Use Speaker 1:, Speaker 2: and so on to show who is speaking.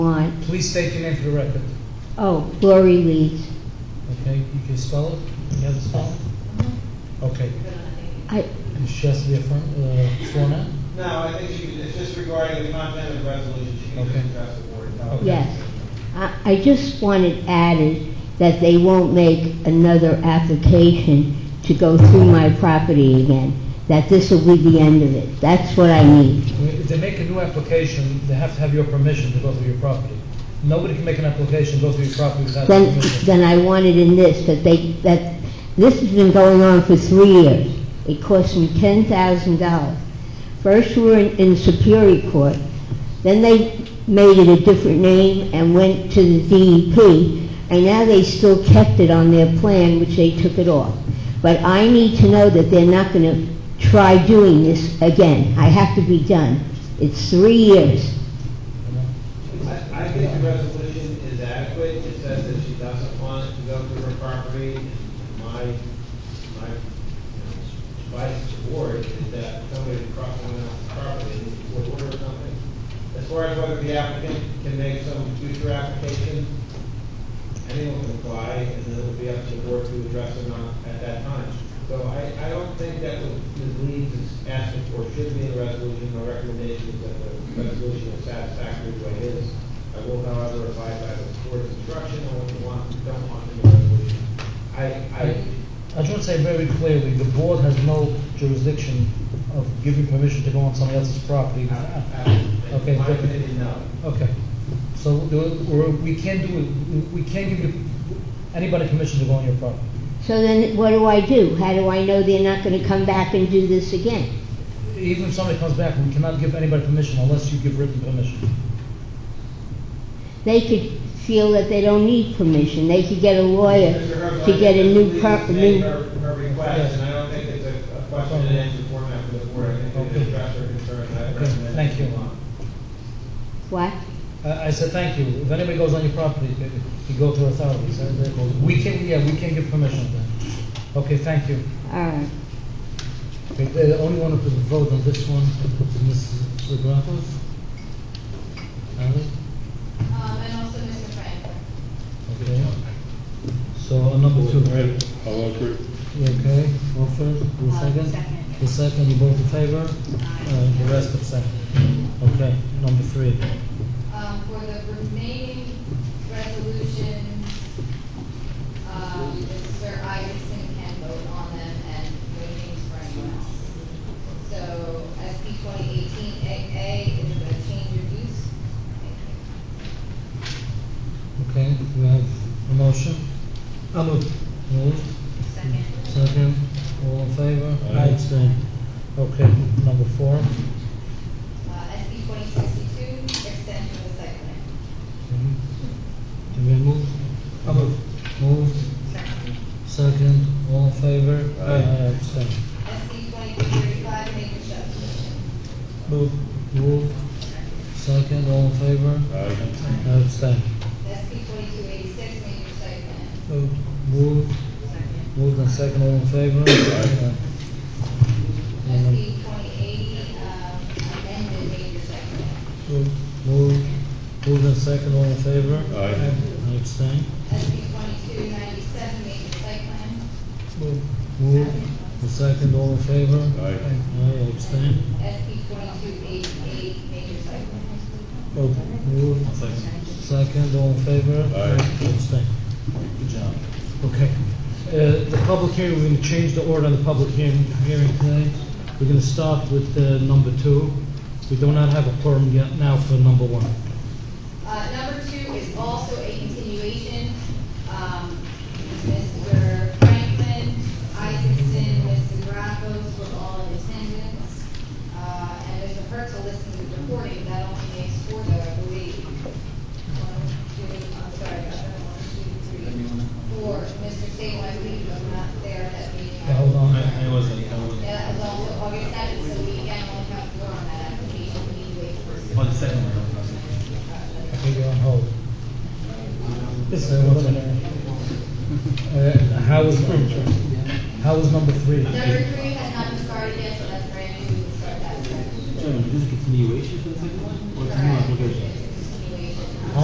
Speaker 1: want.
Speaker 2: Please state your name for the record.
Speaker 1: Oh, Lori Leeds.
Speaker 2: Okay, you can spell it? You have to spell it? Okay.
Speaker 1: I,
Speaker 2: She has to be affirm, uh, sworn in?
Speaker 3: No, I think she, it's just regarding the content of the resolution, she can
Speaker 2: Okay.
Speaker 3: just address the board. No.
Speaker 2: Okay.
Speaker 1: yes. I, I just wanted added that they won't make another application to go through my property again, that this will be the end of it. That's what I need.
Speaker 2: If they make a new application, they have to have your permission to go through your property. Nobody can make an application, go through your property without your
Speaker 1: Then,
Speaker 2: permission.
Speaker 1: then I wanted in this, that they, that, this has been going on for three years. It cost me ten thousand dollars. First we were in, in Superior Court, then they made it a different name and went to the DEP, and now they still kept it on their plan, which they took it off. But I need to know that they're not gonna try doing this again. I have to be done. It's three years.
Speaker 3: I, I think the resolution is adequate, it says that she doesn't want to go through her property, and my, my, you know, advice to the board is that somebody would cross someone else's property, and would order something. As far as whether the applicant can make some future application, anyone can apply, and then it would be up to the board to address or not at that time. So I, I don't think that what Ms. Leeds is asking for should be in the resolution, my recommendation is that the resolution is satisfactory the way it is. I will however abide by the board's instruction on what we want, and don't want in the resolution. I, I,
Speaker 2: I should say very clearly, the board has no jurisdiction of giving permission to go on somebody else's property.
Speaker 3: I,
Speaker 2: Okay,
Speaker 3: in my
Speaker 2: but-
Speaker 3: opinion, no.
Speaker 2: Okay, so the- we're- we can't do, it. we can't give you- anybody permission to go on your property.
Speaker 1: So then what do I do? How do I know they're not gonna come back and do this again?
Speaker 2: Even if somebody comes back, we cannot give anybody permission unless you give written permission.
Speaker 1: They could feel that they don't need permission, they could get a lawyer
Speaker 3: Mr. Herzog,
Speaker 1: to get a new
Speaker 3: please
Speaker 1: per,
Speaker 3: make
Speaker 1: new,
Speaker 3: Her her request, and I don't think it's a a question and answer format for the board, I think
Speaker 2: Okay.
Speaker 3: it's address her concerns, I
Speaker 2: Okay,
Speaker 3: recommend.
Speaker 2: thank you.
Speaker 1: what?
Speaker 2: I, I said, thank you, if anybody goes on your property, they- you go to authorities, Uh, they go- we can, yeah, we can give permission then. Okay, thank you.
Speaker 1: All right,
Speaker 2: Okay, The only one who could vote on this one is Mrs. Grafos. Ali?
Speaker 4: Um, and also Mr. Franklin.
Speaker 2: Okay. So on number two,
Speaker 5: Wait, I'll agree.
Speaker 2: You okay, go first, the
Speaker 4: Uh,
Speaker 2: second?
Speaker 4: second, yeah.
Speaker 2: The second, you both in favor? Uh, The rest abstain. Okay, number three.
Speaker 4: Um, for the remaining resolutions, um, Mr. Isaacson can vote on them and no names for anyone else. So SP twenty eighteen AA is about change of use.
Speaker 2: Okay, we have a motion? I move. Moved,
Speaker 4: Second.
Speaker 2: second, all in favor?
Speaker 5: Aye.
Speaker 2: abstain. Okay, number four.
Speaker 4: Uh, SP twenty sixty-two, extension of the site plan.
Speaker 2: Mhm. Can we move? I move. Moved,
Speaker 4: Second.
Speaker 2: second, all in favor?
Speaker 5: Aye.
Speaker 2: Abstain.
Speaker 4: SP twenty-two thirty-five, make a subdivision.
Speaker 2: Move. Moved, second, all in favor?
Speaker 5: Aye.
Speaker 2: Abstain.
Speaker 4: SP twenty-two eighty-six, make a site plan.
Speaker 2: Moved. Moved,
Speaker 4: Second.
Speaker 2: moved and second, all in favor?
Speaker 5: Aye.
Speaker 2: And num-
Speaker 4: SB twenty eighty, um, amended major site plan.
Speaker 2: Moved, moved moved and second, all in favor?
Speaker 5: Aye.
Speaker 2: I abstain.
Speaker 4: SB twenty-two ninety-seven, major site plan.
Speaker 2: Moved. Moved, the second, all in favor?
Speaker 5: Aye.
Speaker 2: Aye, I abstain.
Speaker 4: SB twenty-two eighty-eight, major site plan.
Speaker 2: Moved, moved, Oh, second, all in favor?
Speaker 5: Aye.
Speaker 2: Abstain. Good job. Okay, uh, the public hearing, we're gonna change the order on the public hearing, hearing tonight. We're gonna start with, uh, number two. We do not have a quorum yet now for number one.
Speaker 4: Uh, number two is also a continuation, um, Mr. Franklin, Isaacson, Mr. Graffos were all in attendance. Uh, and Mr. Hertzel listened to the recording, that only makes four though, I believe. One, two, I'm sorry, I got one, two, three, four. Mr. Sable, I believe, was not there at that meeting.
Speaker 2: Okay, hold on.
Speaker 6: I, I wasn't, I wasn't.
Speaker 4: Yeah, it was also August seventh, so we again only have four on that application, we need to wait for.
Speaker 6: Oh, the second one, I wasn't.
Speaker 2: Okay, you're on hold. Uh, how is, how is number three?
Speaker 4: Number three has not been started yet, so that's brand new, we can start that.
Speaker 6: Sorry, this is a continuation for the second one? Or it's a new
Speaker 4: Correct.
Speaker 6: application?